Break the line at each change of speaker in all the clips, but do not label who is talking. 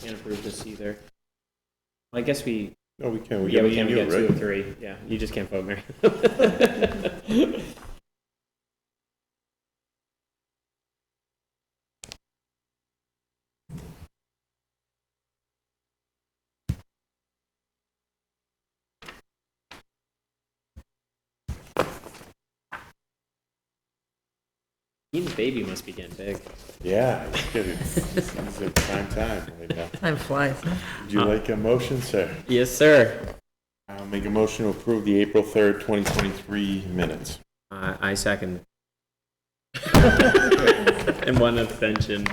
can't approve this either. I guess we,
No, we can, we
yeah,
got
we can, we
do
got two
it,
or
right?
three, yeah, you just can't vote, Mary. Ian's baby must be getting big.
Yeah, I'm kidding. It's a prime time right now.
Time flies.
Would you like a motion, sir?
Yes, sir.
I'll make a motion to approve the April 3rd, 2023 minutes.
Uh, I second. and one abstention.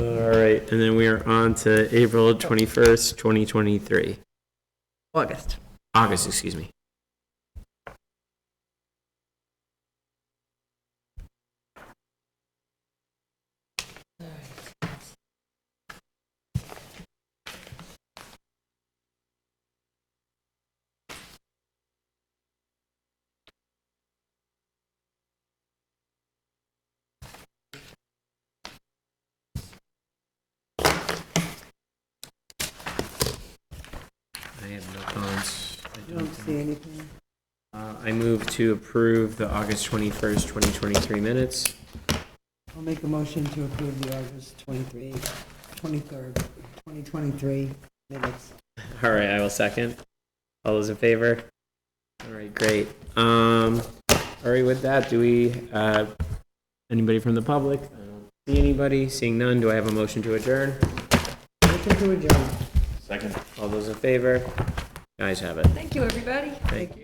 All right, and then we are on to April 21st, 2023.
August.
August, excuse me. I have no comments. I don't
See anything?
Uh, I move to approve the August 21st, 2023 minutes.
I'll make a motion to approve the August 23, 23rd, 2023 minutes.
All right, I will second. All those in favor? All right, great. Um, all right, with that, do we, uh, anybody from the public? I don't See anybody? Seeing none, do I have a motion to adjourn?
Motion to adjourn.
Second.
All those in favor? Guys have it.
Thank you, everybody.
Thank you.